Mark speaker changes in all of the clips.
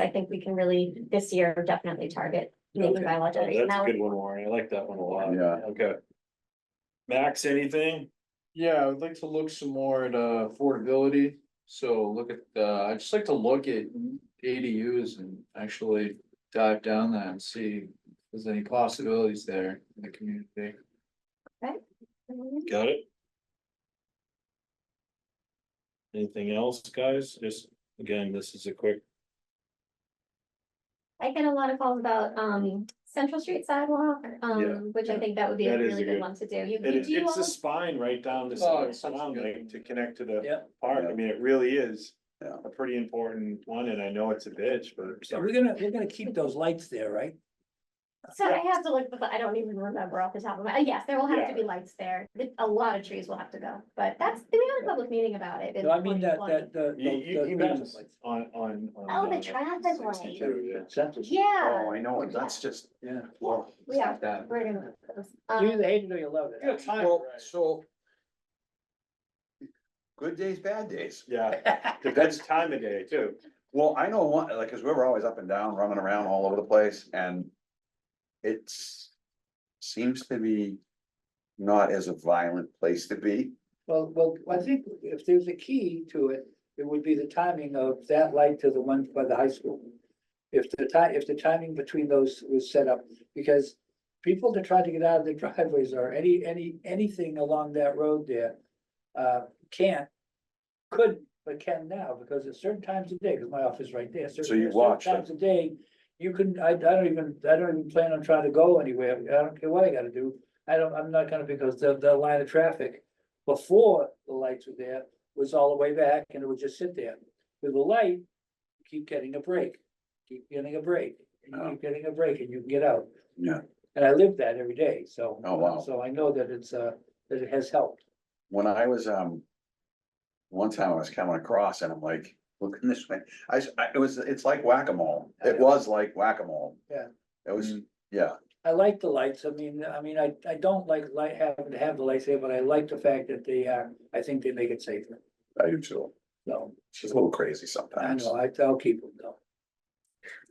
Speaker 1: I think we can really, this year, definitely target making
Speaker 2: Okay.
Speaker 1: bylaw
Speaker 2: Oh,
Speaker 1: generation.
Speaker 2: That's
Speaker 1: Now,
Speaker 2: a good one, Warren. I like that one a lot.
Speaker 3: Yeah.
Speaker 2: Okay. Max, anything?
Speaker 4: Yeah, I would like to look some more at uh, affordability, so look at, uh, I'd just like to look at ADUs and actually dive down that and see if there's any possibilities there in the community.
Speaker 2: Got it? Anything else, guys? Just, again, this is a quick,
Speaker 1: I get a lot of calls about um Central Street sidewalk,
Speaker 2: Yeah,
Speaker 1: um which I
Speaker 2: yeah.
Speaker 1: think that would be a
Speaker 2: That is
Speaker 1: really
Speaker 2: a
Speaker 1: good
Speaker 2: good-
Speaker 1: one to do. You
Speaker 2: and
Speaker 1: you-
Speaker 2: it's,
Speaker 1: do you
Speaker 2: it's
Speaker 1: all?
Speaker 2: a spine right down this
Speaker 4: Oh, it's such a
Speaker 2: town,
Speaker 4: good-
Speaker 2: like, to connect to the
Speaker 5: Yeah,
Speaker 2: park. I
Speaker 3: Yeah.
Speaker 2: mean, it really is.
Speaker 3: Yeah.
Speaker 2: A pretty important one, and I know it's a bitch, but.
Speaker 5: so we're gonna, we're gonna keep those lights there, right?
Speaker 1: So I have to look, but I don't even remember off the top of my, yes, there will have to
Speaker 2: Yeah.
Speaker 1: be lights there. A lot of trees will have to go, but that's, we had a public meeting about it. in
Speaker 5: No, I mean that,
Speaker 1: 2020.
Speaker 5: that, the.
Speaker 2: You,
Speaker 5: the-
Speaker 2: you,
Speaker 5: the
Speaker 2: you
Speaker 5: traffic
Speaker 2: mean
Speaker 5: lights.
Speaker 2: on, on. on,
Speaker 1: Oh, the
Speaker 2: uh,
Speaker 1: traffic light.
Speaker 2: 62, yeah.
Speaker 1: Yeah,
Speaker 3: Oh, I know, it. that's just,
Speaker 5: Yeah.
Speaker 3: well.
Speaker 1: we are,
Speaker 4: That.
Speaker 1: we're gonna.
Speaker 5: You
Speaker 1: um,
Speaker 5: either hate it or you love it.
Speaker 4: Good time,
Speaker 3: Well,
Speaker 4: right?
Speaker 3: so. Good days, bad days.
Speaker 2: Yeah, depends time of day too.
Speaker 3: Well, I know one, like, cause we were always up and down, running around all over the place and it's, seems to be not as a violent place to be.
Speaker 5: Well, well, I think if there's a key to it, it would be the timing of that light to the one by the high school. If the ti- if the timing between those was set up, because people that try to get out of their driveways or any, any, anything along that road there. Uh, can't, could, but can now, because at certain times of day, because my office is right there.
Speaker 3: So
Speaker 5: certain-
Speaker 3: you
Speaker 5: certain
Speaker 3: watch them.
Speaker 5: Times of day, you can, I, I don't even, I don't even plan on trying to go anywhere, I don't care what I gotta do. I don't, I'm not gonna, because the, the line of traffic before the lights were there was all the way back and it would just sit there. With the light, you keep getting a break, keep getting a break, and you keep getting a break and you can get out.
Speaker 3: Uh-huh. Yeah.
Speaker 5: And I live that every day, so.
Speaker 3: Oh, wow.
Speaker 5: So I know that it's, uh, that it has helped.
Speaker 3: When I was, um. One time I was coming across and I'm like, looking this way, I, s- I- it was, it's like whack-a-mole, it was like whack-a-mole.
Speaker 5: Yeah.
Speaker 3: It was,
Speaker 4: Mm.
Speaker 3: yeah,
Speaker 5: I like the lights, I mean, I mean, I, I don't like light, having to have the lights there, but I like the fact that they are, I think they make it safer.
Speaker 3: I do too,
Speaker 5: So,
Speaker 3: it's just a little crazy
Speaker 5: I
Speaker 3: sometimes.
Speaker 5: know, I, I'll keep them though.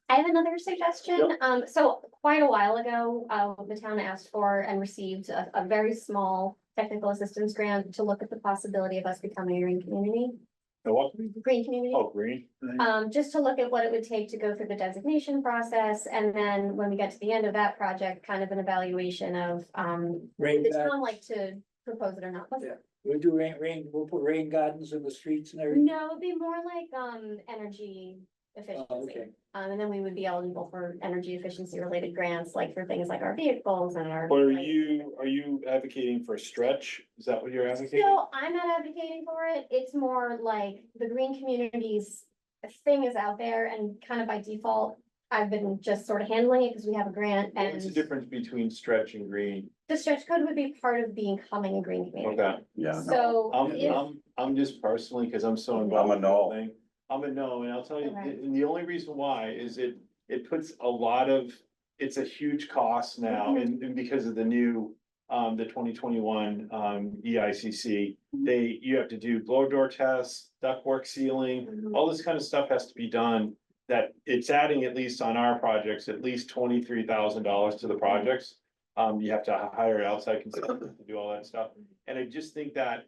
Speaker 1: I have another suggestion. Um, so quite a while ago, uh, the town asked for and received a, a very small technical assistance grant to look at the possibility of us becoming a green community,
Speaker 2: The what?
Speaker 1: green community.
Speaker 2: Oh, green.
Speaker 1: Um, just to look at what it would take to go through the designation process, and then when we get to the end of that project, kind of an evaluation of, um,
Speaker 5: Rain
Speaker 1: did the
Speaker 5: garden-
Speaker 1: town like to propose it or not? Was it-
Speaker 5: we'll do rain, rain, we'll put rain gardens in the streets and everything.
Speaker 1: No, it'd be more like, um, energy
Speaker 5: Oh, okay.
Speaker 1: efficiency. Um, and then we would be eligible for energy efficiency related grants, like for things like our vehicles and our.
Speaker 2: But are you, are you advocating for stretch? Is that what you're advocating?
Speaker 1: No, I'm not advocating for it. It's more like the green communities thing is out there and kind of by default, I've been just sort of handling it because we have a grant and.
Speaker 2: What's the difference between stretch and green?
Speaker 1: The stretch code would be part of becoming a green community.
Speaker 2: Okay.
Speaker 3: Yeah, no,
Speaker 1: So.
Speaker 2: I'm,
Speaker 1: if-
Speaker 2: I'm, I'm just personally, because I'm so involved.
Speaker 3: I'm a
Speaker 2: with the
Speaker 3: no.
Speaker 2: thing, I'm a no, and I'll tell you,
Speaker 1: Okay.
Speaker 2: and the only reason why is it, it puts a lot of, it's a huge cost now,
Speaker 1: Mhm.
Speaker 2: and, and because of the new, um, the twenty twenty-one, um, EICC,
Speaker 1: Mm-hmm.
Speaker 2: they, you have to do blow door tests, ductwork sealing,
Speaker 1: Mhm.
Speaker 2: all this kind of stuff has to be done. That it's adding, at least on our projects, at least twenty-three thousand dollars to the projects. Um, you have to hire outside consultants to do all that stuff, and I just think that.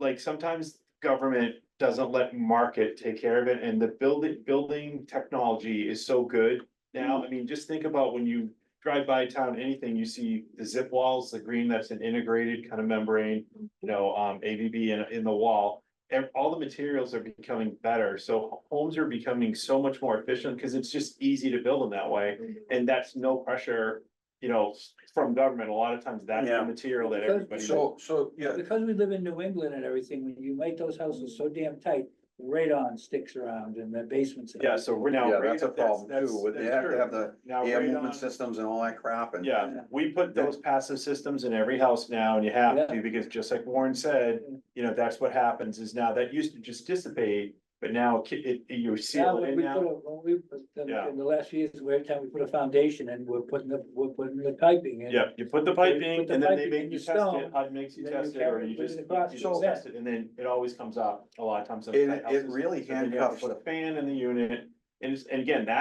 Speaker 2: Like, sometimes government doesn't let market take care of it, and the building, building technology is so good. Now, I mean, just think about when you drive by town, anything, you see the zip walls, the green, that's an integrated kind of membrane. You know, um, ABB in, in the wall, ev- all the materials are becoming better, so homes are becoming so much more efficient, because it's just easy to build them that way. And that's no pressure, you know, from government, a lot of times that's
Speaker 3: Yeah.
Speaker 2: the material that
Speaker 5: Because-
Speaker 2: everybody.
Speaker 3: so, so, yeah,
Speaker 5: Because we live in New England and everything, when you make those houses so damn tight, radon sticks around in the basements. and
Speaker 2: Yeah, so we're now.
Speaker 3: yeah,
Speaker 2: right
Speaker 3: that's a
Speaker 2: up- that's-
Speaker 3: problem too,
Speaker 2: that's-
Speaker 3: with they
Speaker 2: that's
Speaker 3: have to
Speaker 2: true.
Speaker 3: have the
Speaker 2: Now,
Speaker 3: air
Speaker 2: right
Speaker 3: movement
Speaker 2: on-
Speaker 3: systems and all that crap and.
Speaker 2: Yeah, we put those passive systems in every house now and you have to, because just like Warren said, you know, that's what happens is now that used to just dissipate. But now ki- it, you
Speaker 5: Now,
Speaker 2: seal it
Speaker 5: when
Speaker 2: in
Speaker 5: we put
Speaker 2: now.
Speaker 5: a, when we, put
Speaker 2: Yeah.
Speaker 5: the- in the last few years, every time we put a foundation and we're putting the, we're putting the piping in.
Speaker 2: Yeah, you put the
Speaker 5: They
Speaker 2: pipe in
Speaker 5: put the
Speaker 2: and then
Speaker 5: pipe
Speaker 2: they
Speaker 5: in
Speaker 2: make
Speaker 5: and
Speaker 2: you
Speaker 5: you
Speaker 2: test it,
Speaker 5: stone,
Speaker 2: HUD makes you
Speaker 5: then you
Speaker 2: test it, or
Speaker 5: carry
Speaker 2: you
Speaker 5: it, put it
Speaker 2: just,
Speaker 5: in the garage,
Speaker 2: you
Speaker 5: so
Speaker 2: just
Speaker 5: that-
Speaker 2: test it, and then it always comes up a lot of times. on
Speaker 3: It-
Speaker 2: tight
Speaker 3: it
Speaker 2: houses.
Speaker 3: really
Speaker 2: And then you have to
Speaker 3: handcuffs-
Speaker 2: Put a fan in the unit, And, it's- and again, that